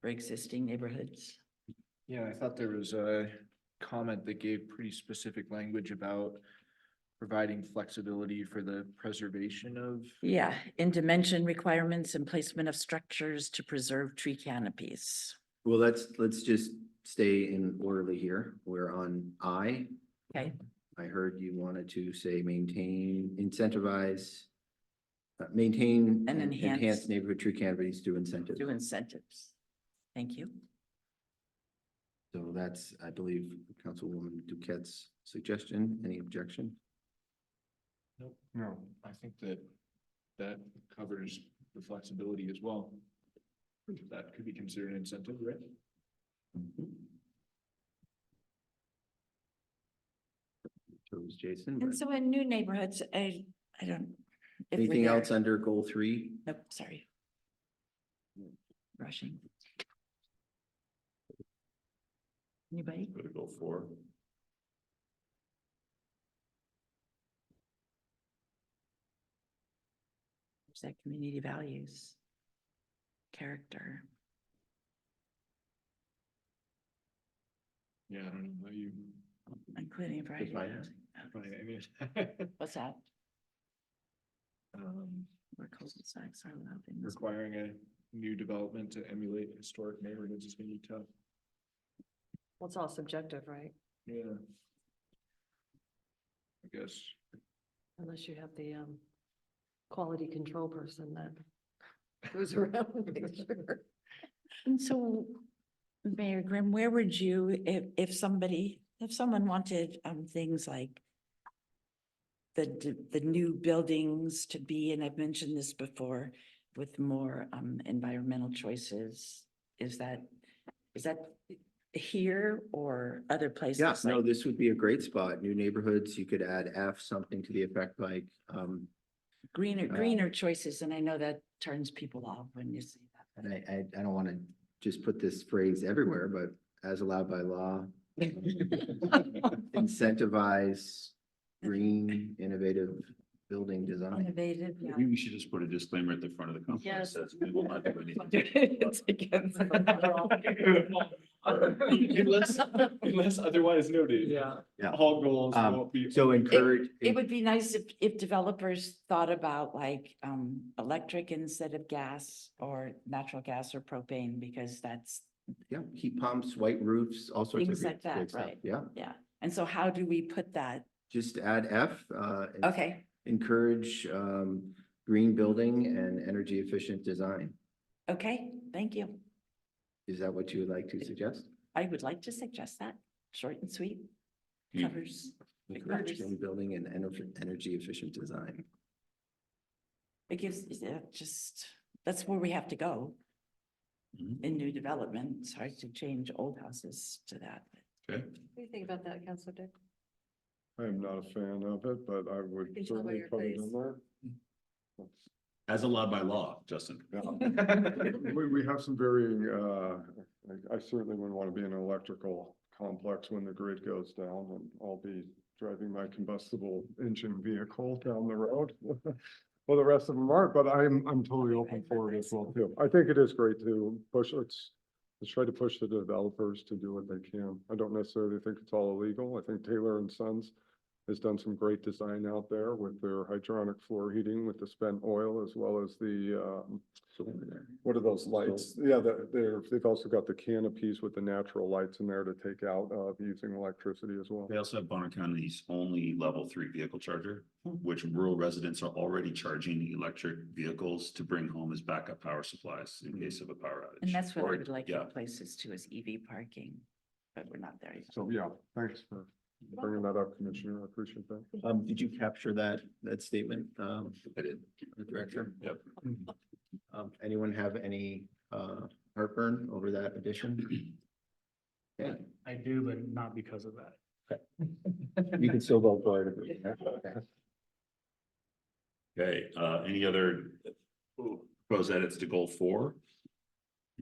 for existing neighborhoods. Yeah, I thought there was a comment that gave pretty specific language about providing flexibility for the preservation of. Yeah, in dimension requirements and placement of structures to preserve tree canopies. Well, let's, let's just stay in orderly here. We're on I. Okay. I heard you wanted to say maintain, incentivize, uh, maintain. And enhance. Neighborhood tree canopies through incentive. Do incentives. Thank you. So that's, I believe, Councilwoman Duquette's suggestion. Any objection? Nope. No, I think that that covers the flexibility as well. That could be considered an incentive, right? So is Jason. And but so in new neighborhoods, I, I don't. if we're Anything there- else under goal three? Nope, sorry. Rushing. Anybody? Go to goal four. Is that community values? Character. Yeah, I don't know, you, Including variety. Define it. probably, I mean. What's that? um, Where cul de are allowed in this- Requiring a new development to emulate historic neighborhoods is gonna be tough. Well, it's all subjective, right? Yeah. I guess. Unless you have the um quality control person that goes around and makes sure. And so, Mayor Grimm, where would you, if, if somebody, if someone wanted, um, things like the, d- the new buildings to be, and I've mentioned this before, with more, um, environmental choices, is that, is that here or other places? Yeah, no, like- this would be a great spot. New neighborhoods, you could add F, something to the effect like, um, Greener, uh, greener choices, and I know that turns people off when you say that. and I, I, I don't want to just put this phrase everywhere, but as allowed by law, incentivize green innovative building design. Innovative, yeah. Maybe we should just put a disclaimer at the front of the company that Yes. says we will not do anything. It's against the- Unless, unless otherwise noted. Yeah. Yeah. All goals Um, won't be. So encourage, It would be nice if, if developers thought about like, um, electric instead of gas or natural gas or propane, because that's, yeah, heat pumps, white roofs, all sorts of. Things great- like that, great stuff. right. Yeah, yeah. And so how do we put that? just add F, uh, and Okay, encourage, um, green building and energy efficient design. okay, thank you. Is that what you would like to suggest? I would like to suggest that, short and sweet, Hmm. covers, Big Encourage numbers. green building and energy, energy efficient design. it gives, is it uh, just, that's where we have to go. Mhm. In new development, it's hard to change old houses to that. Okay. What do you think about that, Counselor Dick? I'm not a fan of it, but I would Can tell by certainly your put it in face. As allowed by law, Justin. We, we have some very, uh, I- I certainly wouldn't want to be in an electrical complex when the grid goes down and I'll be driving my combustible engine vehicle down the road. Well, the rest of them aren't, but I'm, I'm totally open for it as well too. I think it is great to push, let's, let's try to push the developers to do what they can. I don't necessarily think it's all illegal. I think Taylor and Sons has done some great design out there with their hydronic floor heating with the spent oil as well as the, um, what are those lights? Yeah, they're- they're, they've also got the canopies with the natural lights in there to take out of using electricity as well. They also have Bonner County's only level three vehicle charger, Hmm. which rural residents are already charging electric vehicles to bring home as backup power supplies in case of a power outage. Hmm. And that's what I Or- would like in Yeah, places too, is EV parking, but we're not there yet. So, yeah, thanks for bringing that up, Commissioner. I appreciate that. Um, did you capture that, that statement, um, I did. the director? Yep. Um, anyone have any, uh, heartburn over that addition? Yeah, I do, but not because of that. you can still vote for it. Okay, uh, any other proposed edits to goal four?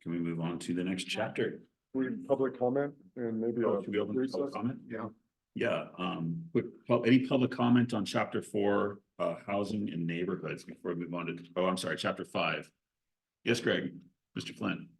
Can we move on to the next chapter? We, public comment and maybe. a Oh, Should we open to public recess? comment? Yeah. Yeah, um, quick, pub- any public comment on chapter four, uh, housing and neighborhoods before we move on to, oh, I'm sorry, chapter five? Yes, Greg, Mr. Flynn.